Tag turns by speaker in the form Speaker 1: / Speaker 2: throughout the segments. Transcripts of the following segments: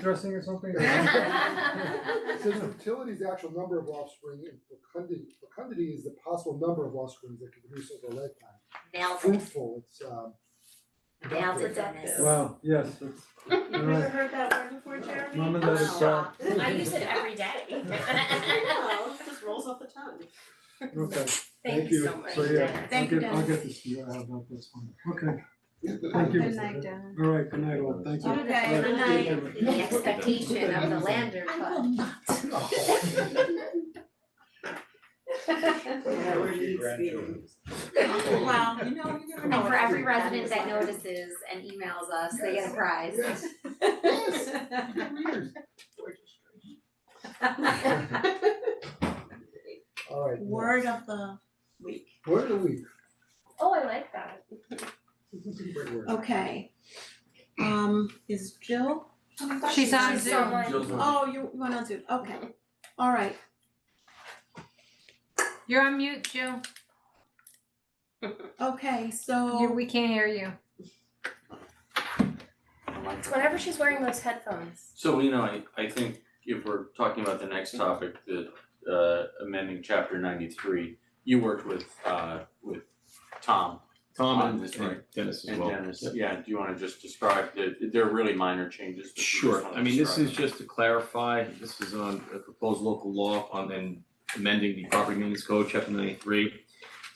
Speaker 1: dressing or something?
Speaker 2: Says fertility is the actual number of offspring and fecundity, fecundity is the possible number of offspring that can produce over a lifetime.
Speaker 3: Nailed it,
Speaker 2: Fruitful, it's um.
Speaker 3: nailed it,
Speaker 4: Productive.
Speaker 3: Dennis.
Speaker 1: Wow, yes, that's, you're
Speaker 4: Never
Speaker 1: right,
Speaker 4: heard that word before, Jeremy?
Speaker 1: mom and dad uh, is
Speaker 3: Wow.
Speaker 1: proud.
Speaker 3: I use it every day.
Speaker 4: I know, it just rolls off the tongue.
Speaker 1: Okay,
Speaker 3: Thank you so much,
Speaker 1: so yeah, I'll
Speaker 4: Thank you,
Speaker 1: get, I'll
Speaker 4: Dennis.
Speaker 1: get this to you, I have not this one, okay,
Speaker 2: Thank
Speaker 1: thank you.
Speaker 5: Good night, Dennis.
Speaker 1: All right, good night all, thank you.
Speaker 4: Okay, good
Speaker 1: Alright, take
Speaker 4: night.
Speaker 1: care.
Speaker 3: The expectation of the lander club.
Speaker 4: Whatever you experience. Well, you know, you never know.
Speaker 3: And for
Speaker 4: what
Speaker 3: every
Speaker 4: happens.
Speaker 3: resident that notices and emails us, they get a prize.
Speaker 2: Yes, yes, good readers. Alright,
Speaker 4: Word of the week.
Speaker 2: word of the week,
Speaker 3: Oh, I like that.
Speaker 2: great word.
Speaker 4: Okay. Um, is Jill?
Speaker 5: She's on
Speaker 3: She's
Speaker 5: Zoom.
Speaker 3: someone-
Speaker 6: Jill's on.
Speaker 4: Oh, you, you went on Zoom, okay. All right,
Speaker 5: You're on mute, Jill.
Speaker 4: okay,
Speaker 5: You,
Speaker 4: so,
Speaker 5: we can't hear you.
Speaker 7: Whenever she's wearing those headphones.
Speaker 6: So, you know, I, I think if we're talking about the next topic, the, uh, amending chapter ninety-three, you worked with, uh, with Tom
Speaker 8: Tom
Speaker 6: on
Speaker 8: and
Speaker 6: this,
Speaker 8: and Dennis as
Speaker 6: and
Speaker 8: well.
Speaker 6: Dennis.
Speaker 8: Yep.
Speaker 6: Yeah, do you wanna just describe the, they're really minor changes. but you just
Speaker 8: Sure,
Speaker 6: wanna
Speaker 8: I mean, this
Speaker 6: describe
Speaker 8: is just to clarify, this is on a proposed local law on and amending the property maintenance code, chapter ninety-three.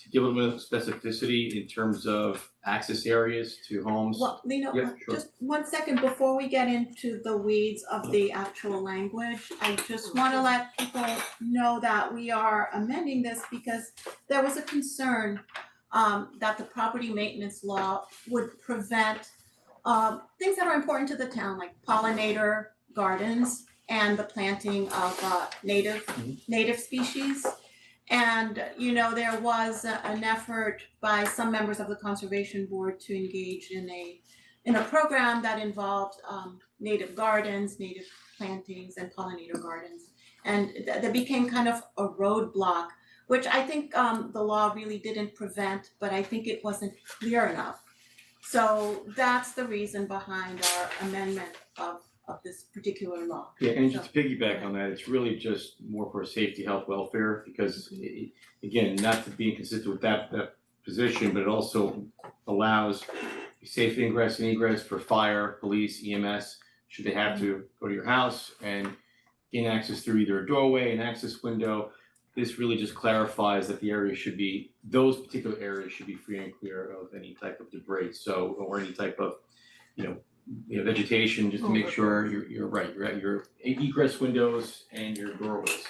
Speaker 8: To give it with specificity in terms of access areas to homes.
Speaker 4: well, you
Speaker 8: Yeah,
Speaker 4: know,
Speaker 8: sure.
Speaker 4: just one second before we get into the weeds of the actual language, I just wanna let people know that we are amending this because there was a concern um that the property maintenance law would prevent um things that are important to the town, like pollinator gardens and the planting of uh native
Speaker 8: Mm-hmm.
Speaker 4: native species. And you know, there was a- an effort by some members of the conservation board to engage in a in a program that involved um native gardens, native plantings and pollinator gardens. And th- that became kind of a roadblock, which I think um the law really didn't prevent, but I think it wasn't clear enough. So that's the reason behind our amendment of of this particular law.
Speaker 8: Yeah, and just to piggyback on that, it's really just more for safety, health, welfare, because i- i- again, not to be inconsistent with that that position, but it also allows safe ingress and egress for fire, police, EMS, should they have to go to your house and gain access through either a doorway, an access window. This really just clarifies that the area should be, those particular areas should be free and clear of any type of debris, so, or any type of, you know, you know, vegetation, just to make sure you're, you're right, you're at your egress windows and your doorways.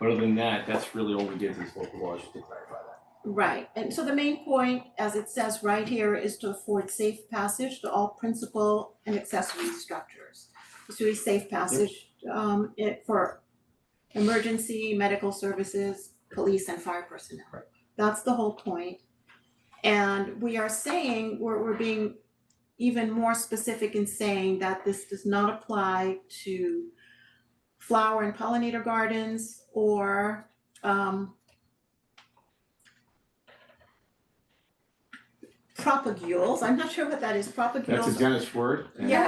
Speaker 8: But other than that, that's really all we did is local laws, just to clarify that.
Speaker 4: Right, and so the main point, as it says right here, is to afford safe passage to all principal and accessory structures. So we safe passage um it for emergency, medical services, police and fire personnel.
Speaker 8: Right.
Speaker 4: That's the whole point. And we are saying, we're we're being even more specific in saying that this does not apply to flower and pollinator gardens or um propagules, I'm not sure what that is, propagules.
Speaker 8: That's a Dennis word. and- Dennis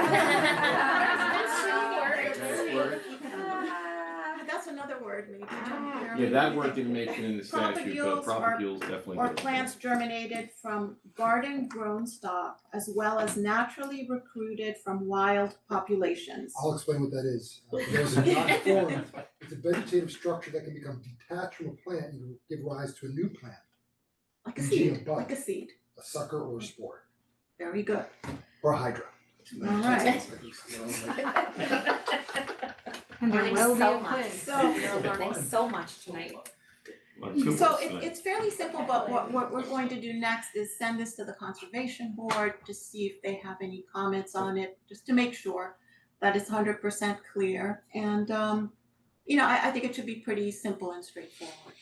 Speaker 8: word.
Speaker 4: Ah, That's another word maybe, John,
Speaker 8: Yeah,
Speaker 4: Jeremy,
Speaker 8: that
Speaker 4: you
Speaker 8: word
Speaker 4: think?
Speaker 8: didn't make it in the statute, but
Speaker 4: Propagules or-
Speaker 8: propagules definitely
Speaker 4: Or
Speaker 8: did.
Speaker 4: plants germinated from garden grown stock as well as naturally recruited from wild populations.
Speaker 2: I'll explain what that is. Uh, for those who are not informed, it's a vegetative structure that can become detached from a plant and give rise to a new plant,
Speaker 4: Like a
Speaker 2: Eugene
Speaker 4: seed,
Speaker 2: Buck.
Speaker 4: like a seed,
Speaker 2: a sucker or a spore,
Speaker 4: very good,
Speaker 2: or a hydra.
Speaker 4: Alright.
Speaker 5: And there
Speaker 3: Learning
Speaker 5: will be
Speaker 3: so
Speaker 5: a
Speaker 3: much.
Speaker 5: quiz.
Speaker 4: so.
Speaker 3: You're learning so much tonight.
Speaker 8: Well, two words
Speaker 4: So it
Speaker 8: tonight.
Speaker 4: it's fairly simple, but what what we're going to do next is send this to the conservation board to see if they have any comments on it, just to make sure that it's hundred percent clear and um you know, I I think it should be pretty simple and straightforward.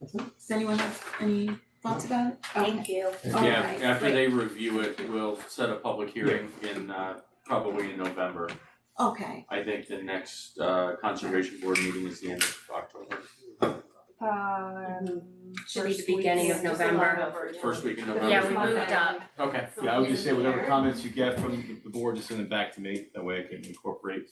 Speaker 4: Does anyone have any thoughts about it? Okay.
Speaker 3: Thank you.
Speaker 2: All
Speaker 6: Yeah,
Speaker 4: right,
Speaker 6: after
Speaker 4: great.
Speaker 6: they review it, we'll set a public hearing in, uh, probably in November.
Speaker 4: Okay,
Speaker 6: I think the next, uh, conservation board meeting is the end of October.
Speaker 5: Um.
Speaker 7: Should be the beginning of November.
Speaker 6: First week in November?
Speaker 7: Yeah, we moved up.
Speaker 6: Okay.
Speaker 8: Yeah, I would just say whatever comments you get from the board, just send them back to me, that way I can incorporate